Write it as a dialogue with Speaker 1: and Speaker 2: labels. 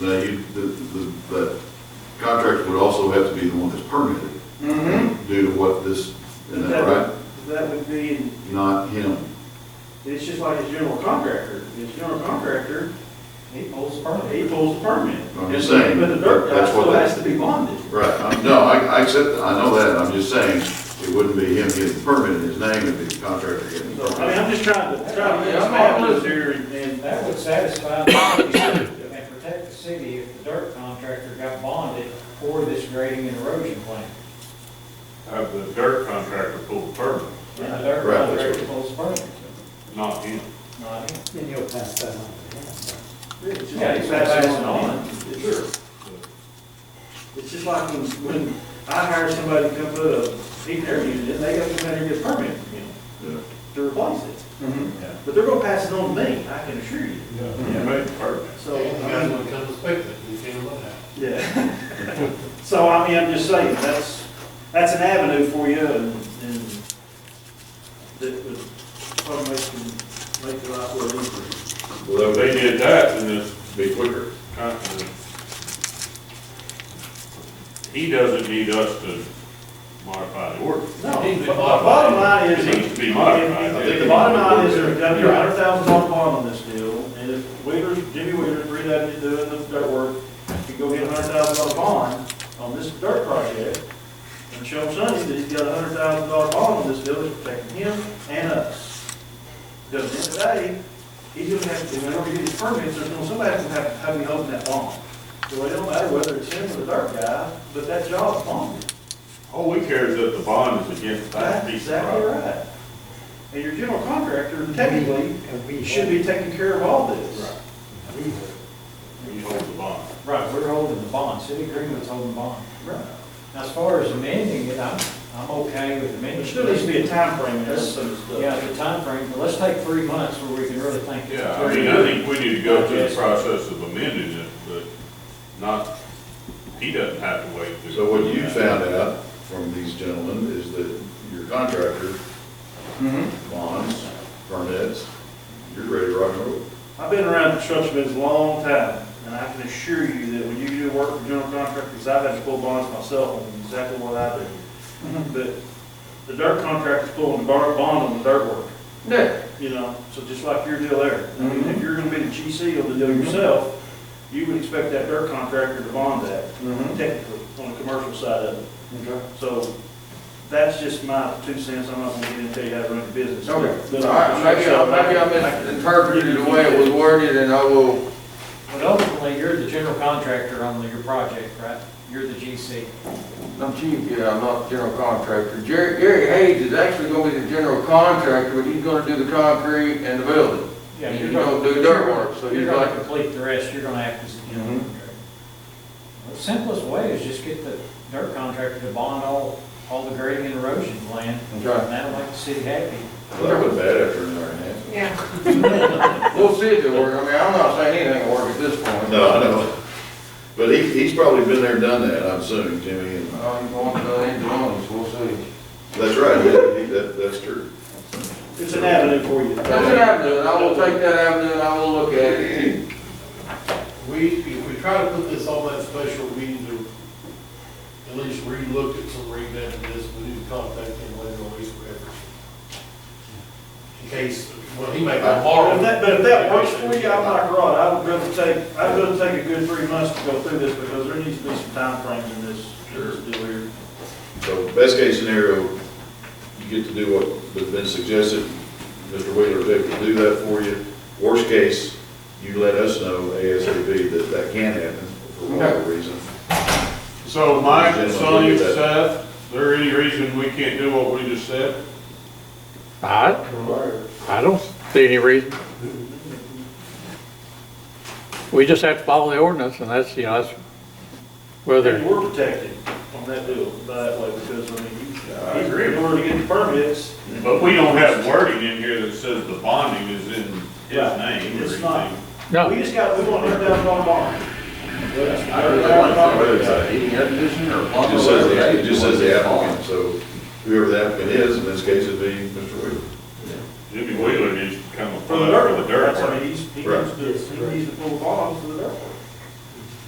Speaker 1: Now, you, the, the, the contractor would also have to be the one that's permitted
Speaker 2: Mm-hmm.
Speaker 1: due to what this, isn't that right?
Speaker 2: That would be,
Speaker 1: Not him.
Speaker 2: it's just like his general contractor, his general contractor,
Speaker 3: He pulls the permit.
Speaker 2: he pulls the permit.
Speaker 1: I'm just saying,
Speaker 2: But the dirt guy
Speaker 1: that's what
Speaker 2: still
Speaker 1: that-
Speaker 2: has to be bonded.
Speaker 1: Right, I'm- no, I, I accept, I know that, I'm just saying, it wouldn't be him getting the permit in his name, it'd be the contractor getting the
Speaker 2: So,
Speaker 1: permit.
Speaker 2: I mean, I'm just trying to, trying to get some options here and, and
Speaker 3: That would satisfy the city and protect the city if the dirt contractor got bonded for this grading and erosion plan.
Speaker 4: Have the dirt contractor pull the permit,
Speaker 3: And the dirt
Speaker 1: Right, that's
Speaker 3: contractor
Speaker 1: right.
Speaker 3: pulls the permit,
Speaker 4: not him.
Speaker 3: not him.
Speaker 5: Then you'll pass that on to him.
Speaker 2: it's just
Speaker 3: Yeah,
Speaker 2: like
Speaker 3: he's
Speaker 2: passing it
Speaker 3: passing
Speaker 2: on. Sure. It's just like when, when I hire somebody to come put a heat air unit in, they gotta come out here and get a permit from him
Speaker 1: Yeah.
Speaker 2: to replace it.
Speaker 1: Mm-hmm.
Speaker 2: But they're gonna pass it on to me, I can assure you.
Speaker 4: You made the permit.
Speaker 2: So, um,
Speaker 5: You
Speaker 2: I
Speaker 5: guys
Speaker 2: mean,
Speaker 5: will come inspect it, you can look at it.
Speaker 2: Yeah. So, I mean, I'm just saying, that's, that's an avenue for you and, and that would probably make, them- make the life a little easier.
Speaker 4: Well, if they did that, then it'd be quicker. Uh, He doesn't need us to modify the ordinance.
Speaker 2: No, the bottom line is.
Speaker 4: It needs to be modified.
Speaker 2: I think The bottom line is there's gotta be a hundred thousand dollar bond on this deal, and if Wheeler, Jimmy Wheeler, three that is doing the dirt work, can go get a hundred thousand dollar bond on this dirt project, and show him Sonny that he's got a hundred thousand dollar bond on this deal, that's protecting him and us. Because at the end of the day, he's gonna have to, whenever he gets permits, there's gonna, somebody to have, have me holding that bond. So it don't matter whether it's him or the dirt guy, but that job's bonded.
Speaker 4: All we care is that the bond is against that
Speaker 2: That's
Speaker 4: piece of
Speaker 2: exactly
Speaker 4: property.
Speaker 2: right. And your general contractor technically
Speaker 5: And we
Speaker 2: should be taking care of all this.
Speaker 4: Right. We hold the bond.
Speaker 3: Right, we're holding the bond, city agreement's holding the bond.
Speaker 2: Right.
Speaker 3: Now, as far as amending it, I'm, I'm okay with amending.
Speaker 2: There
Speaker 3: it.
Speaker 2: still needs to be a timeframe in this sort of
Speaker 3: Yeah,
Speaker 2: stuff.
Speaker 3: the timeframe, but let's take three months where we can really think.
Speaker 4: Yeah, I mean, I think we need to go through the process of amending it, but not, he doesn't have to wait. through-
Speaker 1: So what you found out from these gentlemen is that your contractor bonds, permits, you're ready to rock and roll.
Speaker 2: I've been around construction business a long time, and I can assure you that when you do work for general contractors, I've had to pull bonds myself on exactly what I do. But the dirt contractor's pulling the bar- bond on the dirt work. You know, so just like your deal there. I mean, if you're gonna be the GC of the deal yourself, you would expect that dirt contractor to bond that. technically, on the commercial side of it.
Speaker 5: Okay.
Speaker 2: So that's just my two cents, I'm not gonna get in and tell you how to run the business.
Speaker 6: Okay, all right, maybe, I- maybe I misinterpreted the way it was worded, and I will,
Speaker 3: But ultimately, you're the general contractor on your project, right? You're the GC.
Speaker 6: I'm chief, yeah, I'm not the general contractor. Jerry, Gary Hayes is actually gonna be the general contractor, but he's gonna do the concrete and the building.
Speaker 3: Yeah,
Speaker 6: And
Speaker 3: you're
Speaker 6: you
Speaker 3: gonna-
Speaker 6: don't do dirt work, so
Speaker 3: You're
Speaker 6: you're
Speaker 3: gonna
Speaker 6: like,
Speaker 3: complete the rest, you're gonna act as, you know.
Speaker 6: Mm-hmm.
Speaker 3: The simplest way is just get the dirt contractor to bond all, all the grading and erosion land.
Speaker 6: Okay.
Speaker 3: And that'll make the city happy.
Speaker 1: Well, that was bad after an hour and a half.
Speaker 6: we'll see if it works. I mean, I'm not saying anything will work at this point.
Speaker 1: No, I know. But he, he's probably been there, done that, I'm assuming, Jimmy, and,
Speaker 6: I'm going to the end of the month, so we'll see.
Speaker 1: that's right, yeah, he- that, that's true.
Speaker 2: It's an avenue for you.
Speaker 6: That's an avenue, and I will take that avenue, and I will look at it.
Speaker 5: We, if we try to put this on that special, we need to at least relook at some revamp of this, we need to contact him later on, he's whatever. In case, well, he may go
Speaker 2: But if
Speaker 5: tomorrow.
Speaker 2: that, but if that works for you, I'm like Rod, I would rather take, I'd rather take a good three months to go through this, because there needs to be some timeframes in this, this deal here.
Speaker 1: So best case scenario, you get to do what has been suggested, Mr. Wheeler's able to do that for you. Worst case, you let us know ASAP that that can happen for whatever reason.
Speaker 4: So Mike, Sonny, Seth, is there any reason we can't do what we just said?
Speaker 7: I, I don't see any reason. We just have to follow the ordinance, and that's, you know, that's
Speaker 2: And
Speaker 7: whether,
Speaker 2: we're protected on that deal, by that way, because, I mean, you,
Speaker 4: I
Speaker 2: he's
Speaker 4: agree.
Speaker 2: in order to get the permits,
Speaker 4: But we don't have wording in here that says the bonding is in his
Speaker 2: Right.
Speaker 4: name or
Speaker 2: It's not.
Speaker 4: anything.
Speaker 2: we
Speaker 7: no,
Speaker 2: just got, we want a hundred thousand dollar bond.
Speaker 1: Heating air conditioner or? It just says, the- it just says the applicant, so whoever the applicant is, in this case, it'd be Mr. Wheeler.
Speaker 4: Jimmy Wheeler needs to come up
Speaker 2: For the
Speaker 4: with
Speaker 2: dirt,
Speaker 4: the dirt
Speaker 2: that's, I
Speaker 4: part.
Speaker 2: mean, he's, he
Speaker 1: Right.
Speaker 2: needs to, he needs to pull the bonds for the dirt.